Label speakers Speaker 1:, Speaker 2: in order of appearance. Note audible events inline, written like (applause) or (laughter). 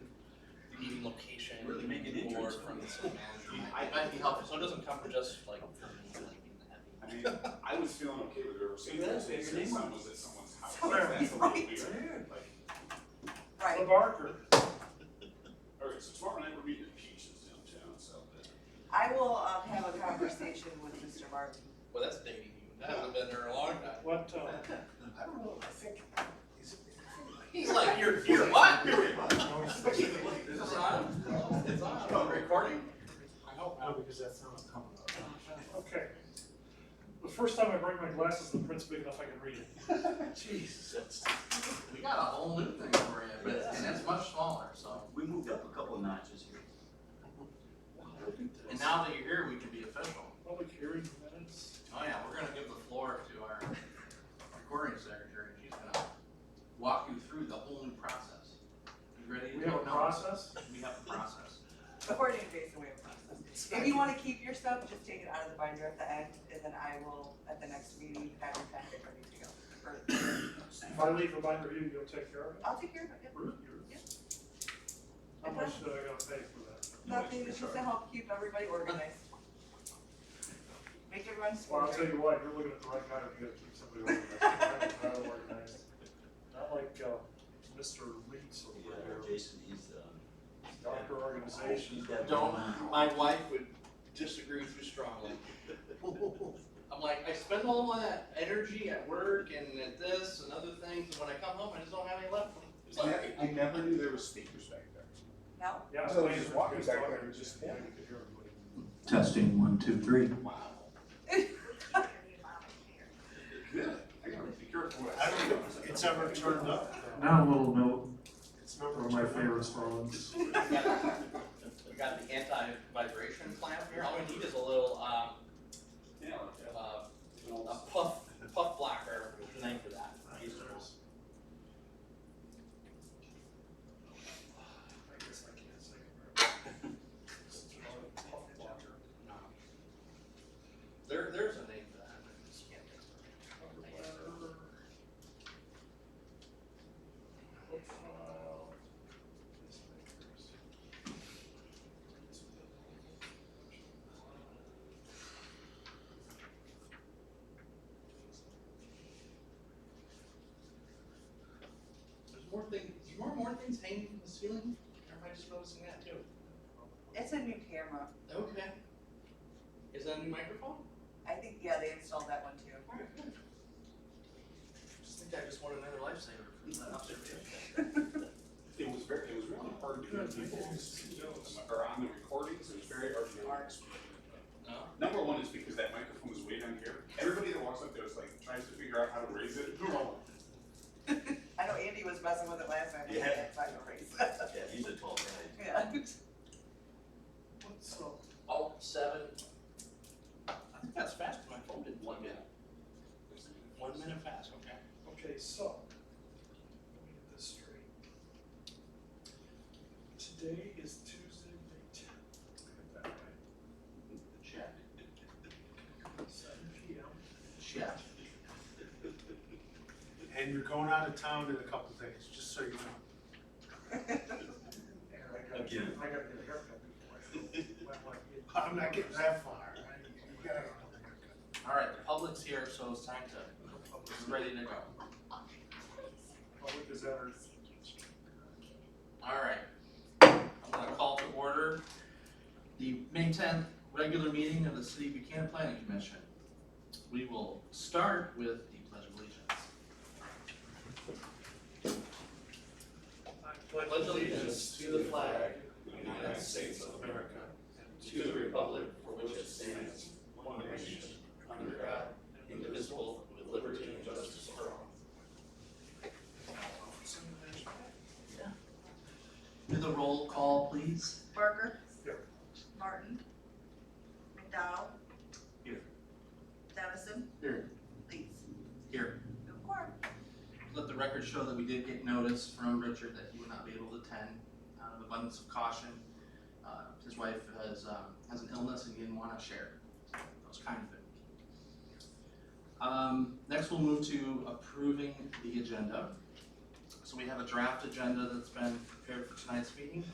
Speaker 1: certain location
Speaker 2: Really make an
Speaker 1: or
Speaker 2: entrance.
Speaker 1: from the city (laughs) manager
Speaker 2: I-
Speaker 1: might, might be helpful, so it doesn't come from just like from like being the heavy.
Speaker 3: I mean, I was feeling okay with River St.
Speaker 2: Yeah,
Speaker 3: Louis,
Speaker 2: bigger
Speaker 3: if
Speaker 2: name.
Speaker 3: your son was at someone's house,
Speaker 2: Where?
Speaker 3: that's a little
Speaker 4: Right.
Speaker 3: weird, like.
Speaker 4: Right,
Speaker 3: Barker. Alright, so tomorrow night we're meeting at Peaches downtown, so.
Speaker 4: I will, um, have a conversation with Mr. Martin.
Speaker 1: Well, that's dating you, that hasn't been there in a long time.
Speaker 5: What, uh,
Speaker 3: I don't know, I think, is it?
Speaker 1: (laughs) He's like, you're, you're (laughs) what?
Speaker 3: Is
Speaker 1: Is this on? It's on, Oh, recording?
Speaker 6: I hope not, because that's not what's coming up.
Speaker 5: uh, okay. The first time I bring my glasses, the print's big enough I can read it.
Speaker 1: Jesus, that's, we got a whole new thing for you, but, it's- and it's much smaller, so.
Speaker 2: We moved up a couple notches here.
Speaker 1: And now that you're here, we can be official.
Speaker 5: Public hearing minutes.
Speaker 1: Oh yeah, we're gonna give the floor to our recording secretary, she's gonna walk you through the whole new process. You ready to
Speaker 5: We
Speaker 1: go?
Speaker 5: have a
Speaker 1: No.
Speaker 5: process?
Speaker 1: We have a process.
Speaker 4: According to Jason, we have a process. If you wanna keep your stuff, just take it out of the binder at the end, and then I will, at the next meeting, have your packet ready to go. Or-
Speaker 5: If I leave a binder here, you'll take care of it?
Speaker 4: I'll take care of it, yeah.
Speaker 5: Really? How much do I gotta pay for that?
Speaker 4: Nothing, it's just to help keep everybody organized. Make everyone
Speaker 5: Well, I'll tell
Speaker 4: smarter.
Speaker 5: you what, you're looking at the right guy if you gotta keep somebody organized. I'm not organized. Not like, uh, Mr. Leeds over there,
Speaker 2: Jason, he's, um.
Speaker 5: doctor organization.
Speaker 1: Don't, my wife would disagree with you (laughs) strongly. I'm like, I spend all that energy at work and at this and other things, and when I come home, I just don't have any left. It's like,
Speaker 3: I never knew there were speakers back there.
Speaker 4: No,
Speaker 5: Yeah,
Speaker 3: So
Speaker 5: so
Speaker 3: he's
Speaker 5: he's
Speaker 3: just walking
Speaker 5: walking
Speaker 3: back
Speaker 5: back
Speaker 3: there,
Speaker 5: there,
Speaker 3: just-
Speaker 5: just, yeah, you could hear everybody.
Speaker 2: Testing, one, two, three.
Speaker 3: Wow. Good, I gotta be careful what I
Speaker 6: I
Speaker 3: say.
Speaker 6: don't think it's ever turned up.
Speaker 7: Now a little note,
Speaker 6: It's
Speaker 7: one
Speaker 6: never
Speaker 7: of my
Speaker 6: turned up.
Speaker 7: favorite songs.
Speaker 1: We got the anti-vibration clamp here, all we need is a little, um,
Speaker 3: Yeah,
Speaker 1: uh, a puff, puff blocker, what's the name for that?
Speaker 5: I guess I can't say.
Speaker 1: There, there's a name for that, I just can't think of it. There's more things, there's more and more things hanging from the ceiling, everybody's just noticing that too.
Speaker 4: it's a new camera.
Speaker 1: Okay. Is that a new microphone?
Speaker 4: I think, yeah, they installed that one too.
Speaker 1: Alright, good. Just think I just want another lifesaver from that observation.
Speaker 3: It was very, it was really hard to hear people speak or on the recordings, it was very hard to hear. people speak.
Speaker 1: No?
Speaker 3: Number one is because that microphone was way down here, everybody that walks up there is like, tries to figure out how to raise it.
Speaker 4: I know Andy was messing with it last night, but
Speaker 2: Yeah.
Speaker 4: that's not gonna raise it.
Speaker 2: Yeah, he's a tall guy.
Speaker 4: Yeah.
Speaker 5: So,
Speaker 1: Alt seven. I think that's fast, my phone did one minute. One minute fast, okay.
Speaker 5: okay, so, let me get this straight. Today is Tuesday, May tenth. Look at that, right?
Speaker 1: Check.
Speaker 5: Seven P M.
Speaker 1: Check.
Speaker 6: And you're going out of town in a couple days, just so you know. (laughs)
Speaker 4: (laughs)
Speaker 5: And I gotta,
Speaker 2: Again.
Speaker 5: I gotta get a haircut before I go. When, like, it-
Speaker 6: I'm not getting that far. I- you gotta go to the haircut.
Speaker 1: All right, the public's here, so it's time to, it's ready to go.
Speaker 5: Public is at our
Speaker 1: All right. I'm gonna call to order the May tenth regular meeting of the City of Buchanan Planning Commission. We will start with the pledge of allegiance.
Speaker 5: pledge
Speaker 1: allegiance to the flag
Speaker 3: United States of America,
Speaker 1: to the republic for which it stands, one nation, under God, indivisible, with liberty and justice for all. Do the roll call, please.
Speaker 4: Barker.
Speaker 5: Here.
Speaker 4: Martin. McDowell.
Speaker 1: Here.
Speaker 4: Dennison.
Speaker 1: Here.
Speaker 4: Leeds.
Speaker 1: Here,
Speaker 4: No quorum.
Speaker 1: let the record show that we did get notice from Richard that he would not be able to attend out of abundance of caution. Uh, His wife has, um, has an illness and he didn't want to share. That was kind of it. Um, Next, we'll move to approving the agenda. So we have a draft agenda that's been prepared for tonight's meeting.